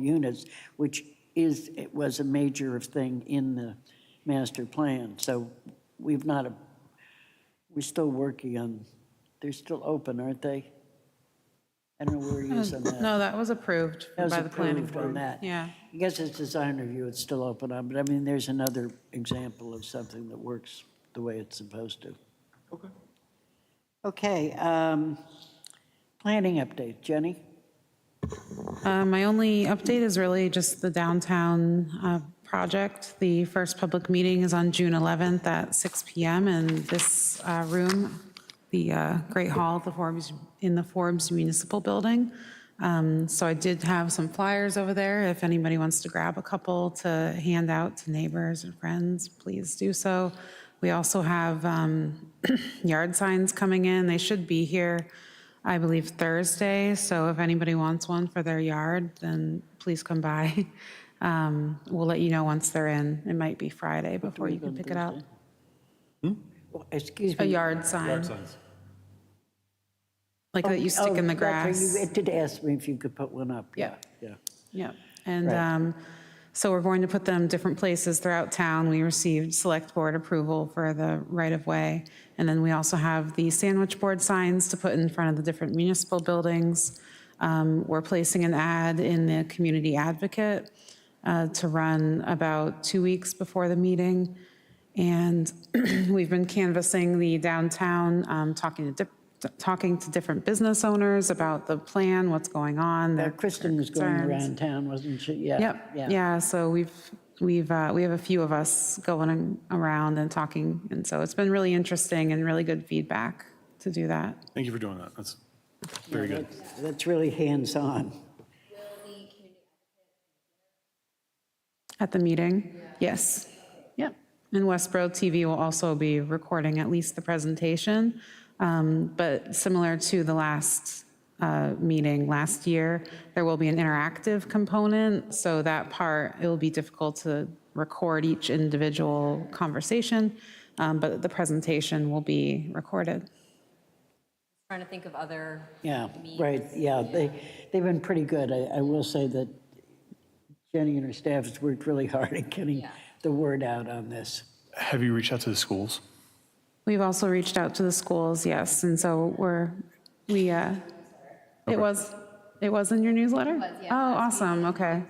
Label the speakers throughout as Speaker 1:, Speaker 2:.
Speaker 1: units, which is, it was a major thing in the master plan. So we've not, a- we're still working on, they're still open, aren't they? I don't know where he is on that.
Speaker 2: No, that was approved
Speaker 1: That was
Speaker 2: by the planning
Speaker 1: approved on
Speaker 2: board.
Speaker 1: that.
Speaker 2: Yeah.
Speaker 1: I guess it's design review, it's still open on, but I mean, there's another example of something that works the way it's supposed to. Okay. Okay, um, planning update, Jenny?
Speaker 2: Uh, My only update is really just the downtown uh, project. The first public meeting is on June 11th at 6 PM in this uh, room, the uh, Great Hall, the Forbes, in the Forbes Municipal Building. Um, So I did have some flyers over there. If anybody wants to grab a couple to hand out to neighbors or friends, please do so. We also have um, yard signs coming in. They should be here. I believe Thursday, so if anybody wants one for their yard, then please come by. Um, We'll let you know once they're in. It might be Friday before you can pick it up.
Speaker 1: Oh, Excuse
Speaker 2: A
Speaker 1: me.
Speaker 2: yard sign,
Speaker 3: signs.
Speaker 2: like that you stick in the
Speaker 1: Oh, that's right,
Speaker 2: grass.
Speaker 1: you- It did ask me if you could put one up.
Speaker 2: Yeah.
Speaker 1: Yeah.
Speaker 2: Yep. And
Speaker 1: Right.
Speaker 2: um, so we're going to put them different places throughout town. We received select board approval for the right-of-way. And then we also have the sandwich board signs to put in front of the different municipal buildings. Um, We're placing an ad in the Community Advocate uh, to run about two weeks before the meeting. And we've been canvassing the downtown, um, talking to, dip- talking to different business owners about the plan, what's going on,
Speaker 1: Uh,
Speaker 2: their
Speaker 1: Kristen was going
Speaker 2: concerns.
Speaker 1: around town, wasn't she? Yeah.
Speaker 2: Yep, yeah, so we've, we've, uh, we have a few of us going around and talking, and so it's been really interesting and really good feedback to do that.
Speaker 3: Thank you for doing that. That's very good.
Speaker 1: That's- That's really hands-on.
Speaker 2: At the meeting? Yes. Yep. And Westboro TV will also be recording at least the presentation. Um, But similar to the last uh, meeting last year, there will be an interactive component. So that part, it will be difficult to record each individual conversation, um, but the presentation will be recorded.
Speaker 4: Trying to think of other,
Speaker 1: Yeah, right, yeah, they, they've been pretty good. I, I will say that Jenny and her staff has worked really hard at getting the word out on this.
Speaker 3: Have you reached out to the schools?
Speaker 2: We've also reached out to the schools, yes, and so we're, we, uh, it was, it was in your newsletter? Oh, awesome, okay.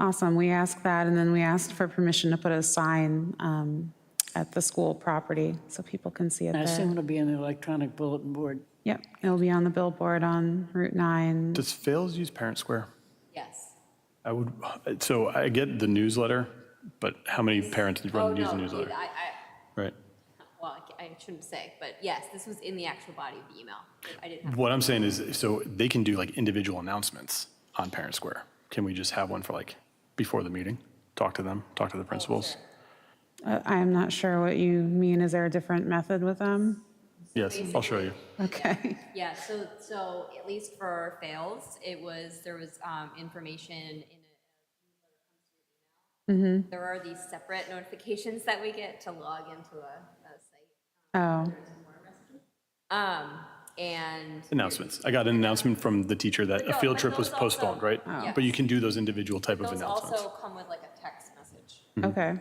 Speaker 2: Awesome, we asked that, and then we asked for permission to put a sign um, at the school property, so people can see it
Speaker 1: I assume
Speaker 2: there.
Speaker 1: it'll be in the electronic bulletin board.
Speaker 2: Yep, it'll be on the billboard on Route 9.
Speaker 3: Does Fails use Parent Square?
Speaker 4: yes.
Speaker 3: I would, so I get the newsletter, but how many parents
Speaker 4: Oh,
Speaker 3: run use
Speaker 4: no,
Speaker 3: the
Speaker 4: I,
Speaker 3: newsletter?
Speaker 4: I,
Speaker 3: Right.
Speaker 4: well, I I shouldn't say, but yes, this was in the actual body of the email. I didn't have,
Speaker 3: What I'm saying is, so they can do like individual announcements on Parent Square. Can we just have one for like before the meeting? Talk to them, talk
Speaker 4: Oh,
Speaker 3: to the principals?
Speaker 2: Uh, I am not sure what you mean, is there a different method with them?
Speaker 3: Yes, I'll show you.
Speaker 2: Okay,
Speaker 4: yeah, so, so at least for fails, it was, there was um, information in
Speaker 3: Mm-hmm.
Speaker 4: a. There are these separate notifications that we get to log into a, a site.
Speaker 2: oh,
Speaker 4: Um, and
Speaker 3: Announcements. I got an announcement from the teacher that a
Speaker 4: No,
Speaker 3: field
Speaker 4: but
Speaker 3: trip was
Speaker 4: those also-
Speaker 3: postponed, right?
Speaker 4: Oh.
Speaker 3: But you can do those individual type of
Speaker 4: those
Speaker 3: announcements.
Speaker 4: also come with like a text message.
Speaker 3: Hmm.
Speaker 2: okay.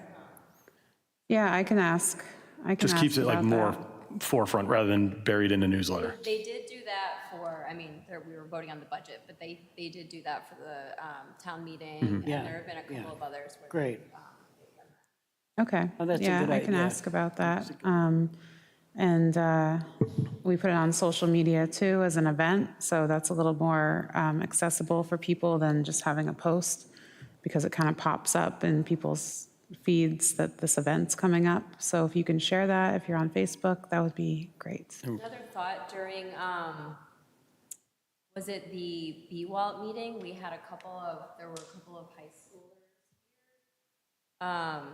Speaker 2: Yeah, I can ask, I can ask
Speaker 3: Just keeps it like
Speaker 2: about
Speaker 3: more
Speaker 2: that.
Speaker 3: forefront rather than buried in a newsletter.
Speaker 4: They did do that for, I mean, there- we were voting on the budget, but they, they did do that for the um, town meeting. And
Speaker 1: Mm-hmm. Yeah,
Speaker 4: there have been a
Speaker 1: yeah.
Speaker 4: couple of others. where they- um,
Speaker 1: Great.
Speaker 2: Okay.
Speaker 1: Oh, that's a good
Speaker 2: Yeah, I can
Speaker 1: idea.
Speaker 2: ask about that. Um, And uh, we put it on social media too as an event, so that's a little more um, accessible for people than just having a post, because it kind of pops up in people's feeds that this event's coming up. So if you can share that, if you're on Facebook, that would be great.
Speaker 4: Another thought during, um, was it the BWALT meeting? We had a couple of, there were a couple of high schoolers. Um,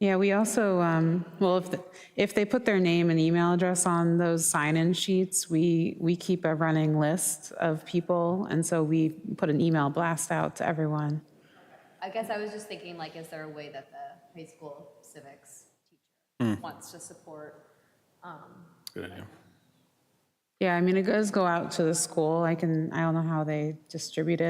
Speaker 2: Yeah, we also, um, well, if, the- if they put their name and email address on those sign-in sheets, we, we keep a running list of people, and so we put an email blast out to everyone.
Speaker 4: I guess I was just thinking, like, is there a way that the high school civics
Speaker 1: Hmm.
Speaker 4: teacher wants to support? um,
Speaker 3: Good idea.
Speaker 2: Yeah, I mean, it does go out to the school, I can, I don't know how they distribute it.